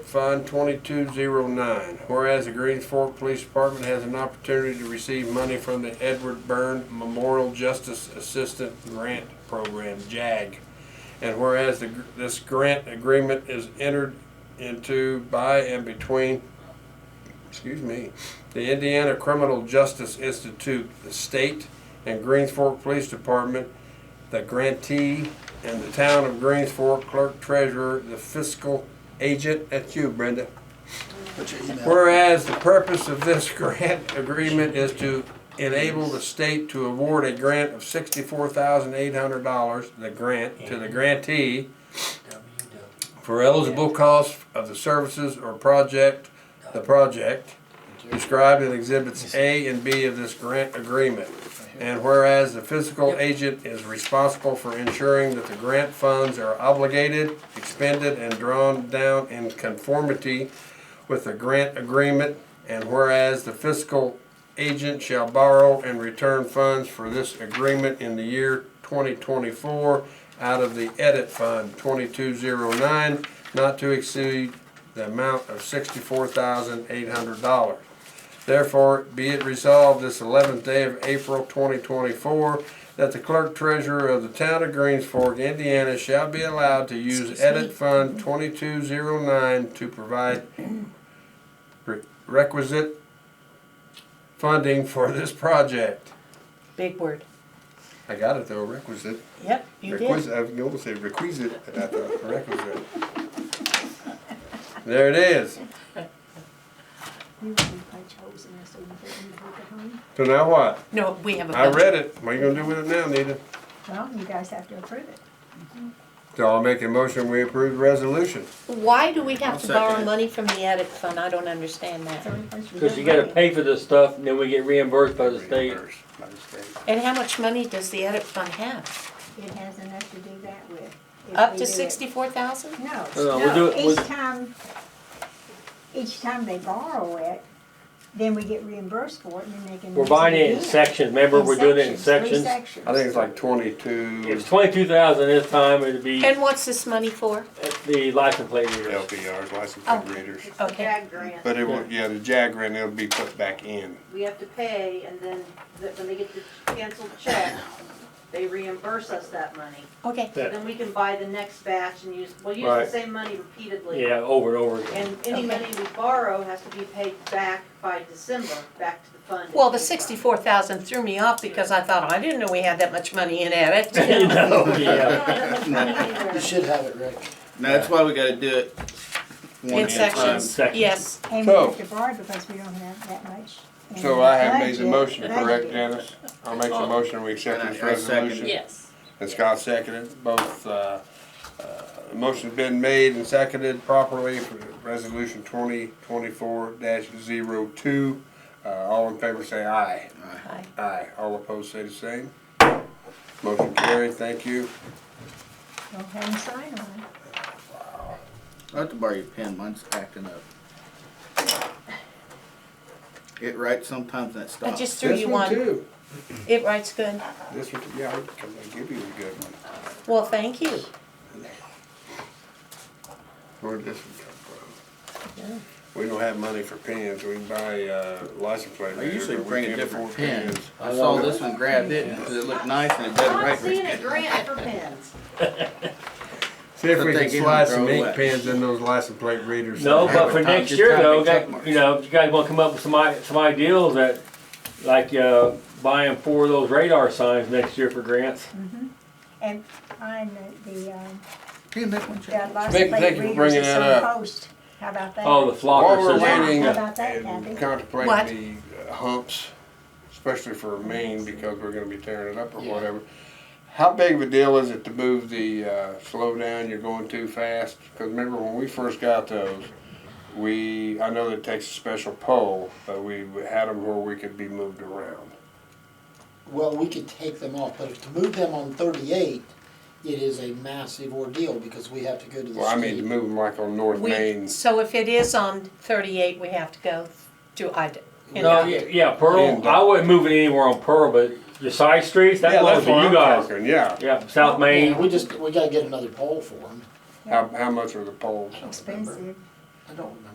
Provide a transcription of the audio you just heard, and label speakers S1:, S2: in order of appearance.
S1: Fund 2209. Whereas the Greens Fork Police Department has an opportunity to receive money from the Edward Byrne Memorial Justice Assistant Grant Program, JAG. And whereas the, gr- this grant agreement is entered into by and between, excuse me, the Indiana Criminal Justice Institute, the state, and Greens Fork Police Department, the grantee, and the town of Greens Fork clerk treasurer, the fiscal agent, that's you, Brenda.
S2: Put your email.
S1: Whereas the purpose of this grant agreement is to enable the state to award a grant of sixty-four thousand eight hundred dollars, the grant, to the grantee for eligible costs of the services or project, the project described in exhibits A and B of this grant agreement. And whereas the fiscal agent is responsible for ensuring that the grant funds are obligated, expended, and drawn down in conformity with the grant agreement, and whereas the fiscal agent shall borrow and return funds for this agreement in the year twenty twenty-four out of the edit fund twenty-two zero nine, not to exceed the amount of sixty-four thousand eight hundred dollars. Therefore, be it resolved this eleventh day of April twenty twenty-four, that the clerk treasurer of the town of Greens Fork, Indiana, shall be allowed to use edit fund twenty-two zero nine to provide re- requisite funding for this project.
S3: Big word.
S1: I got it though, requisite.
S3: Yep, you did.
S1: Requisite, I was gonna say requisite, and I thought requisite. There it is. So now what?
S3: No, we have a.
S1: I read it. What are you gonna do with it now, Nita?
S4: Well, you guys have to approve it.
S1: So I'll make a motion, we approve the resolution.
S3: Why do we have to borrow
S2: second it.
S3: money from the edit fund? I don't understand that.
S5: Cause you gotta pay for this stuff and then we get reimbursed by the state.
S2: Reimbursed by the state.
S3: And how much money does the edit fund have?
S4: It has enough to do that with. if
S3: Up
S4: we
S3: to
S4: do it.
S3: sixty-four thousand?
S4: No,
S5: No, we Uh,
S4: no,
S5: do it
S4: each
S5: with-
S4: time, each time they borrow it, then we get reimbursed for it and then they can.
S5: We're
S4: use
S5: buying it in
S4: again.
S5: sections, remember,
S4: In
S5: we're doing it in
S4: sections, three
S5: sections.
S4: sections.
S1: I think it's like
S5: If
S1: twenty-two.
S5: it's twenty-two thousand this time, it'd be
S3: And what's this money for?
S5: the license plate reader.
S2: LPRs, license
S3: Oh.
S2: plate readers.
S3: Okay,
S6: JAG grant,
S2: But it will, yeah, the JAG grant, it'll be put back in.
S6: we have to pay, and then the- when they get the canceled check, they reimburse us that money.
S3: okay.
S6: So Then we can buy the next batch and use, we'll use
S5: Right.
S6: the same money repeatedly.
S5: Yeah, over and over again.
S6: And any
S3: Okay.
S6: money we borrow has to be paid back by December, back to the fund.
S3: Well, the sixty-four thousand threw me off because I thought, "Oh, I didn't know we had that much money in edit.
S5: You know, yeah.
S6: You should have.
S7: No, that's why we gotta do it. one
S3: In
S7: at a time.
S3: sections,
S5: Sections.
S3: yes.
S4: And we
S1: So-
S4: have to borrow because we don't have that much. in
S1: So I have made the
S4: budget.
S1: motion, correct,
S4: Budget.
S1: Janice? I'll make the motion, we accept this
S7: Oh. And I- I second
S1: resolution.
S7: it.
S3: Yes.
S1: And Scott seconded, both, uh, uh, the motion's been made and seconded properly for resolution twenty twenty-four dash zero two. Uh, all in favor say aye.
S3: Hi.
S1: Aye. All opposed say the same. Motion carried, thank you.
S4: Go ahead and sign on it.
S7: I'll have to borrow your pen, mine's acting up. It writes sometimes and it
S3: I
S7: stops.
S3: just threw you
S1: This one
S3: one.
S1: too.
S3: It writes good.
S1: This one, too. yeah, I- 'cause I give you a good one.
S3: Well, thank you.
S1: Where'd this one come from? We don't have money for pens, we can buy, uh, license plate.
S7: I
S1: readers,
S7: usually
S1: but we
S7: bring a
S1: can't
S7: different
S1: afford
S7: pen. I saw this one grabbed it because it looked nice and it doesn't
S6: I'm
S7: write very
S6: seeing a grant for pens.
S1: See if
S7: But
S1: we
S7: they
S1: can
S7: give 'em
S1: slide some
S7: throwaway.
S1: ink pens in those license plate readers.
S5: No,
S1: somehow.
S5: but for next year though, got- you know, you guys wanna come up with some i- some ideals that, like, uh, buying four of those radar signs next year for grants.
S4: And find the, the, um,
S7: Can you make one check?
S4: that license
S1: Thank-
S4: plate
S1: thank you for
S4: readers
S1: bringing
S4: that's
S1: that
S4: on
S1: up.
S4: post. How about that?
S5: Oh, the
S1: While
S5: flocker
S1: we're
S5: system.
S1: waiting
S4: How about that,
S1: and
S4: Kathy?
S3: What?
S1: contemplating the uh, humps, especially for Maine, because we're gonna be tearing it up or whatever. How big of a deal is it to move the, uh, slow down, you're going too fast? Cause remember when we first got those, we, I know that it takes a special pole, but we had them where we could be moved around.
S8: Well, we could take them off, but if to move them on thirty-eight, it is a massive ordeal because we have to go to the
S1: Well, I mean, to
S8: state.
S1: move them like on North
S3: We,
S1: Main.
S3: so if it is on thirty-eight, we have to go to, I, you
S5: No,
S3: know.
S5: yeah, yeah, Pearl,
S1: And, uh,
S5: I wouldn't move it anywhere on Pearl, but your side streets, that
S1: Yeah,
S5: belongs
S1: that's
S5: to
S1: what
S5: you
S1: I'm
S5: guys.
S1: talking, yeah.
S5: Yeah, South Main,
S8: Yeah, we just, we gotta get another pole for them.
S1: How, how much are the poles?
S4: Expensive.
S8: I don't remember.